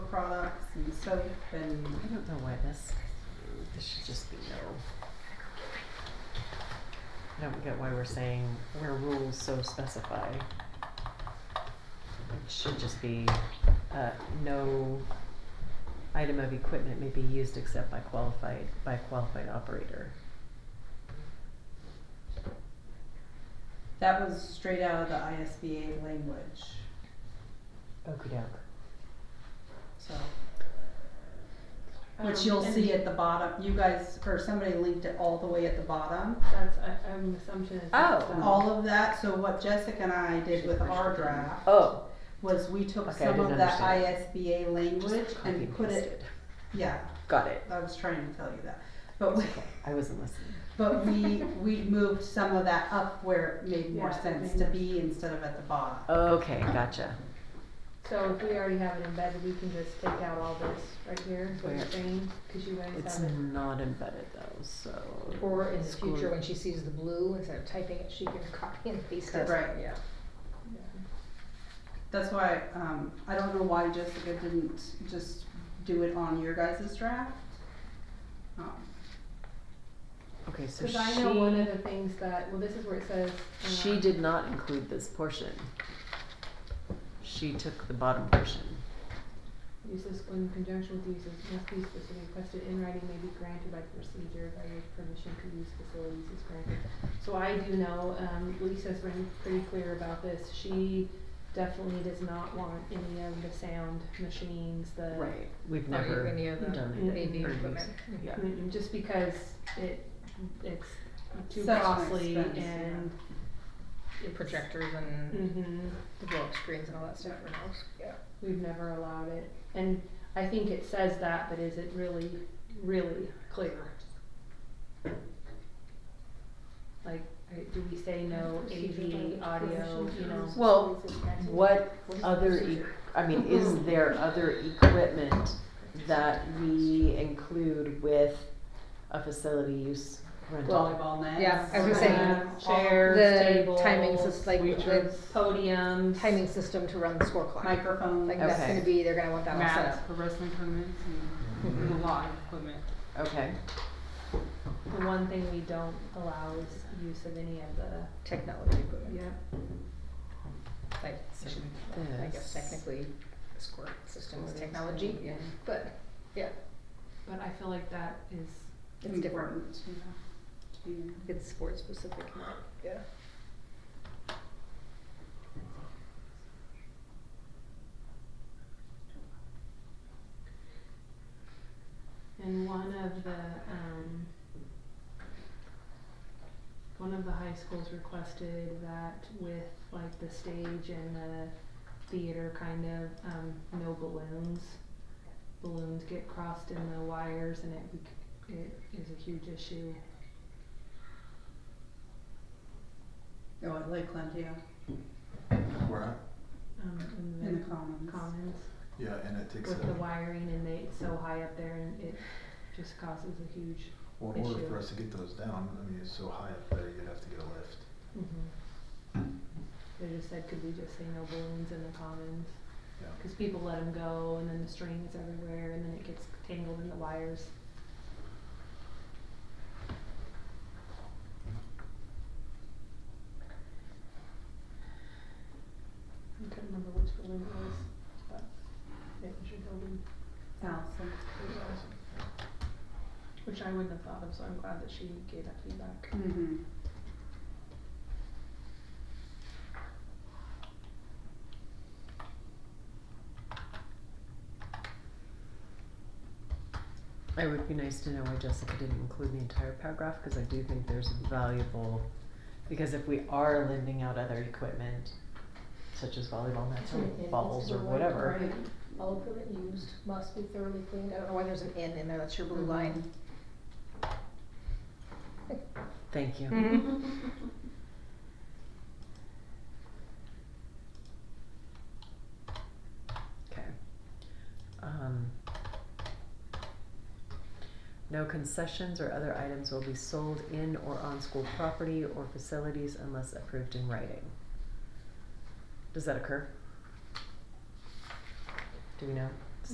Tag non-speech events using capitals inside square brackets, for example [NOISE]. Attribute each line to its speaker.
Speaker 1: products and soap and
Speaker 2: I don't know why this, this should just be no. I don't get why we're saying where rules so specify. It should just be, uh, no item of equipment may be used except by qualified, by qualified operator.
Speaker 1: that was straight out of the ISBA language.
Speaker 2: Okey doke.
Speaker 1: So,
Speaker 2: Um,
Speaker 3: Um,
Speaker 1: which you'll see at the bottom, you guys, or somebody linked it all the way at the bottom.
Speaker 3: That's, I, I'm assumption um, is. that's
Speaker 2: Oh.
Speaker 3: the-
Speaker 1: All of that, so what Jessica and I did with our draft
Speaker 2: Oh.
Speaker 1: was we took
Speaker 2: Okay, I
Speaker 1: some of
Speaker 2: didn't
Speaker 1: that
Speaker 2: understand.
Speaker 1: ISBA
Speaker 2: just
Speaker 1: language
Speaker 2: copy
Speaker 1: and put it,
Speaker 2: pasted.
Speaker 1: yeah,
Speaker 2: Got it.
Speaker 1: I was trying to tell you that. But we,
Speaker 2: It's okay. I wasn't listening.
Speaker 1: but we, we moved some of that up where it made more
Speaker 3: Yeah, it
Speaker 1: sense
Speaker 3: made
Speaker 1: to
Speaker 3: more
Speaker 1: be instead of at the bottom.
Speaker 2: Okay, gotcha.
Speaker 3: So if we already have it embedded, we can just take out all this right here, is what you're
Speaker 2: Where?
Speaker 3: saying, cause you guys
Speaker 2: It's
Speaker 3: have it.
Speaker 2: not embedded though, so.
Speaker 4: Or in the
Speaker 2: School-
Speaker 4: future, when she sees the blue, instead of typing it, she can [LAUGHS] copy and paste it.
Speaker 1: Right.
Speaker 4: Yeah.
Speaker 3: Yeah.
Speaker 1: That's why, um, I don't know why Jessica didn't just do it on your guys' draft. Um,
Speaker 2: Okay, so
Speaker 3: Cause I know one of
Speaker 2: she,
Speaker 3: the things that, well, this is where it says.
Speaker 2: she
Speaker 4: Uh-huh.
Speaker 3: um,
Speaker 2: did not include this portion. She took the bottom portion.
Speaker 3: Uses in conjunction with uses must be specifically requested in writing may be granted by procedure by which permission to use facilities is granted. So I do know, um, Lisa's been pretty clear about this, she definitely does not want any of the sound machines, the.
Speaker 2: We've
Speaker 4: Or
Speaker 2: never
Speaker 4: any of the
Speaker 2: done it.
Speaker 4: AV
Speaker 2: or used-
Speaker 4: equipment.
Speaker 2: Yeah.
Speaker 3: Mm, Just because it, it's too
Speaker 1: Such an
Speaker 3: costly
Speaker 1: expense,
Speaker 3: and.
Speaker 4: Your projectors and
Speaker 3: Mm-hmm.
Speaker 4: the blow up screens and all that stuff for those. Yeah.
Speaker 3: We've never allowed it, and I think it says that, but is it really, really clear? Like, I- do we say no AV, audio, you know?
Speaker 2: Well, What other, e- I mean, is
Speaker 4: Mm-hmm.
Speaker 2: there other equipment that we include with a facility use rental?
Speaker 1: Volleyball nets.
Speaker 4: yeah, I was
Speaker 3: gonna say,
Speaker 1: um,
Speaker 3: chairs,
Speaker 4: The timing
Speaker 3: tables,
Speaker 4: system, like the
Speaker 1: bleachers.
Speaker 3: Podiums.
Speaker 4: timing system to run the score
Speaker 1: all-
Speaker 4: clock.
Speaker 1: Microphones.
Speaker 4: Like that's
Speaker 2: Okay.
Speaker 4: gonna be, they're gonna want that all set
Speaker 5: mats
Speaker 4: up.
Speaker 5: for
Speaker 4: Mm-hmm.
Speaker 5: wrestling tournaments and a lot of equipment.
Speaker 2: Okay,
Speaker 3: The one thing we don't allow is use of any of the,
Speaker 4: Technology equipment.
Speaker 3: yeah,
Speaker 4: Like,
Speaker 2: So
Speaker 4: it should, I guess
Speaker 2: this.
Speaker 4: technically, the score system is
Speaker 2: Score
Speaker 4: technology,
Speaker 2: system, yeah.
Speaker 4: but
Speaker 3: but I feel like that is
Speaker 4: it's different.
Speaker 1: important, you know, to be-
Speaker 4: It's sport specific, not, yeah.
Speaker 3: And one of the, um, one of the high schools requested that with like the stage and the theater kind of, um, no balloons. Balloons get crossed in the wires and it, bec- it is a huge issue.
Speaker 1: Oh, at Lakeland, yeah,
Speaker 6: Where I,
Speaker 3: Um, in the,
Speaker 1: in the commons.
Speaker 3: commons
Speaker 6: yeah, and it takes,
Speaker 3: with the
Speaker 6: a-
Speaker 3: wiring and they, it's so high up there and it just causes a huge.
Speaker 6: well, in order
Speaker 3: issue.
Speaker 6: for us to get those down, I mean, it's so high up there, you'd have to get a lift.
Speaker 3: Mm-hmm. They just said, could we just say no balloons in the commons?
Speaker 6: Yeah.
Speaker 3: Cause people let them go and then the string is everywhere and then it gets tangled in the wires. I couldn't remember which balloon it was, but it was your building,
Speaker 1: Allison.
Speaker 3: which I wouldn't have thought of, so I'm glad that she gave that feedback.
Speaker 1: Mm-hmm.
Speaker 2: it would be nice to know why Jessica didn't include the entire paragraph, cause I do think there's valuable, because if we are lending out other equipment, such as volleyball nets or balls or whatever,
Speaker 4: All equipment used must be thoroughly cleaned. I don't know why there's an N in there, that's your
Speaker 2: Mm-hmm.
Speaker 4: blue line.
Speaker 2: thank
Speaker 4: Mm-hmm.
Speaker 2: you. Okay. Um, no concessions or other items will be sold in or on school property or facilities unless approved in writing. Does that occur? Do we know?